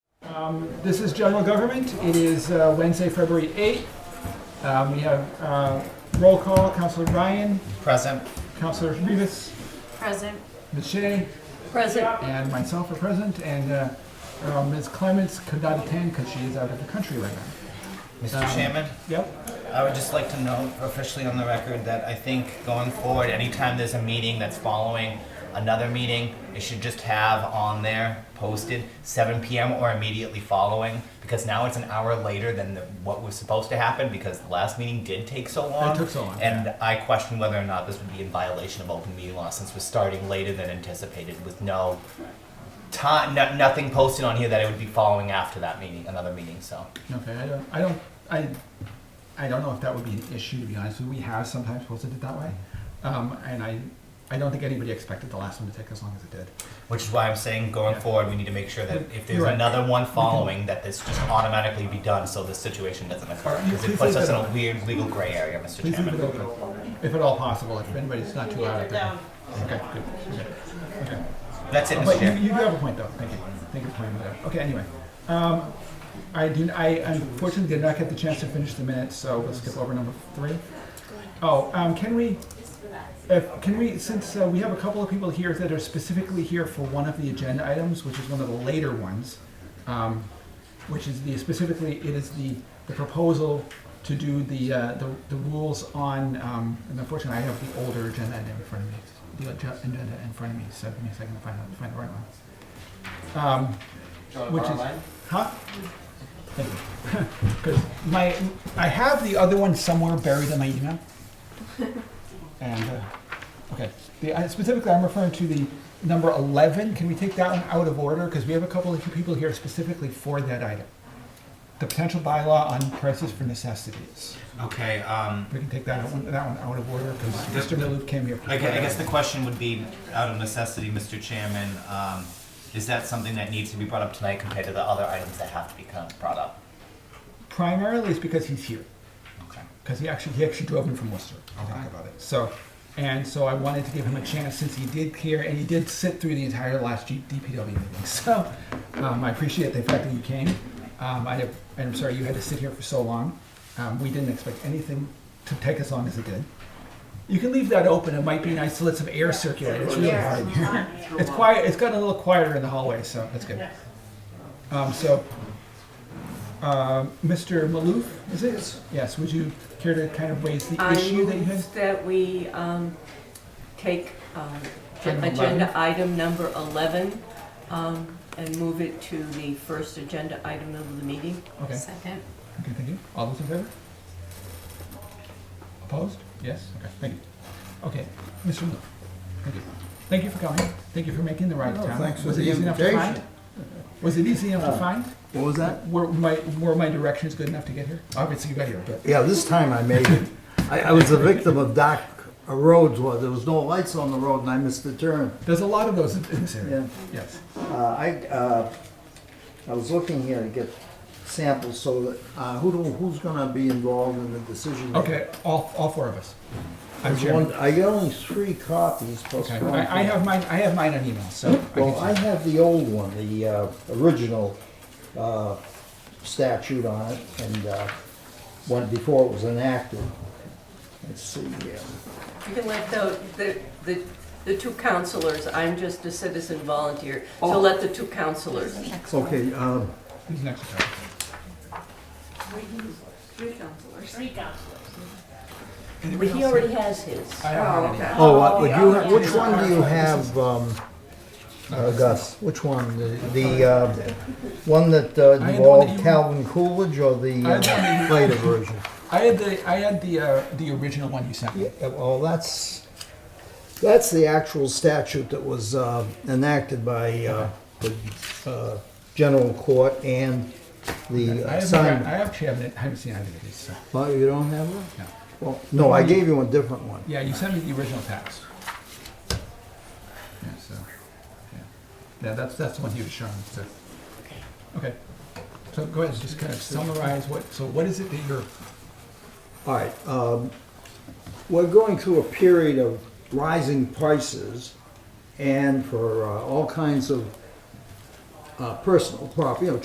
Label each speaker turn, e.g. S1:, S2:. S1: Um, This is general government. It is uh, Wednesday, February 8th. Um, We have uh, roll call, Counselor Ryan,
S2: Present.
S1: Counselor Rivas,
S3: Present.
S1: Ms. Shea,
S3: Present.
S1: and myself are present, and uh, uh, Ms. Clements could not attend because she is out of the country right now.
S2: Mr.
S1: Um,
S2: Chairman,
S1: Yep,
S2: I would just like to note officially on the record that I think going forward, anytime there's a meeting that's following another meeting, it should just have on there posted 7 p.m. or immediately following because now it's an hour later than the, what was supposed to happen because the last meeting did take so long.
S1: took so long,
S2: And I question whether or not this would be in violation of open meeting law since we're starting later than anticipated with no time, no, nothing posted on here that it would be following after that meeting, another meeting. So.
S1: okay, I don't, I don't, I, I don't know if that would be an issue, to be honest with you. We have sometimes posted it that way. Um, And I, I don't think anybody expected the last one to take as long as it did.
S2: Which is why I'm saying going
S1: Yeah.
S2: forward, we need to make sure that if there's
S1: You're right.
S2: another one following, that this just automatically be done so this situation doesn't occur.
S1: You-
S2: Because
S1: please
S2: it puts
S1: leave
S2: us
S1: that
S2: in a
S1: on.
S2: weird legal gray area, Mr.
S1: Please leave
S2: Chairman.
S1: it open, if at all possible, if anybody's not too loud out there. Okay, good, okay, okay.
S2: That's it, Mr.
S1: But you,
S2: Chairman.
S1: you do have a point though, thank you, thank you for pointing that out. Okay, anyway, um, I did, I unfortunately did not get the chance to finish the minutes, so we'll skip over number three. Oh, um, can we, if, can we, since uh, we have a couple of people here that are specifically here for one of the agenda items, which is one of the later ones, um, which is the, specifically, it is the, the proposal to do the, uh, the, the rules on, um, and unfortunately, I have the older agenda item in front of me, the ag- agenda in front of me, so give me a second to find out, find the right one. Um, which is, huh? Thank you. Because my, I have the other one somewhere buried in my email. And, uh, okay, The- I- specifically, I'm referring to the number 11. Can we take that one out of order? Because we have a couple of people here specifically for that item. The potential bylaw on prices for necessities.
S2: Okay, um,
S1: We can take that one, that one out of order because Mr. Maloof came here.
S2: I gue- I guess the question would be, out of necessity, Mr. Chairman, um, is that something that needs to be brought up tonight compared to the other items that have to be kind of brought up?
S1: Primarily it's because he's here.
S2: Okay.
S1: because he actually he actually drove in from Worcester to talk
S2: Okay.
S1: about it. So, and so I wanted to give him a chance since he did care and he did sit through the entire last G- DPW meeting. So, um, I appreciate the fact that you came. Um, I have, and I'm sorry you had to sit here for so long. Um, we didn't expect anything to take as long as it did. You can leave that open. It might be nice to let some air circulate. It's really hot in here. It's quiet. It's gotten a little quieter in the hallway, so that's good. Um, so, uh, Mr. Maloof, is it? Yes, would you care to kind of raise the
S4: I
S1: issue that you had?
S4: move that we um, take um,
S1: Item
S4: agenda item number 11 um, and move it to the first agenda item of the meeting.
S1: Okay,
S3: Second.
S1: okay, thank you. All those in favor? Opposed? Yes, okay, thank you. Okay, Mr. Maloof, thank you. Thank you for coming. Thank you for making the right
S5: Oh,
S1: time.
S5: thanks for
S1: Was it
S5: the
S1: easy enough to find?
S5: invitation. Uh,
S1: Was it easy enough to find?
S5: What was that?
S1: Were my, were my directions good enough to get here? Obviously, you got here, but,
S5: Yeah, this time I made it. I, I was the victim of Doc Rhodes, was, there was no lights on the road and I missed the turn.
S1: there's a lot of those in in this area.
S5: Yeah.
S1: Yes.
S5: Uh, I, uh, I was looking here to get samples so that, uh, who do, who's gonna be involved in the decision? making?
S1: Okay, all, all four of us. I'm
S5: There's
S1: chairman.
S5: one, I got only three copies plus
S1: Okay,
S5: one.
S1: I, I have mine, I have mine on email, so. I can
S5: Well, I
S1: see.
S5: have the old one, the, uh, original, uh, statute on it and, uh, one before it was enacted. Let's see here.
S4: You can let the, the, the the two counselors, I'm just a citizen volunteer, so let the two counselors.
S5: Okay, um,
S1: Who's next? Sorry.
S4: Three counselors.
S1: Anybody
S4: He
S1: else?
S4: already has his.
S1: I have mine on email.
S5: Oh, uh, would you, ha- which
S4: yeah.
S5: one do you have, um, uh, Gus? Which one? The, the, uh, one that uh,
S1: one that
S5: involved
S1: you-
S5: Calvin Coolidge or the
S1: I had
S5: uh, later version?
S1: I had the, I had the, uh, the original one you sent
S5: Yeah,
S1: me.
S5: well, that's, that's the actual statute that was, uh, enacted by, uh, the, uh, general court and the
S1: I haven't,
S5: uh,
S1: gra-
S5: sign.
S1: I actually haven't, I haven't seen either of these, so,
S5: Oh, you don't have one?
S1: no.
S5: Well, no, I gave you a different one.
S1: Yeah, you sent me the original text. Yeah, so, yeah. Yeah, that's, that's the one he was showing, so. Okay. So go ahead, just kind of summarize what, so what is it that you're,
S5: All right, um, we're going through a period of rising prices and for uh, all kinds of uh, personal property, you know,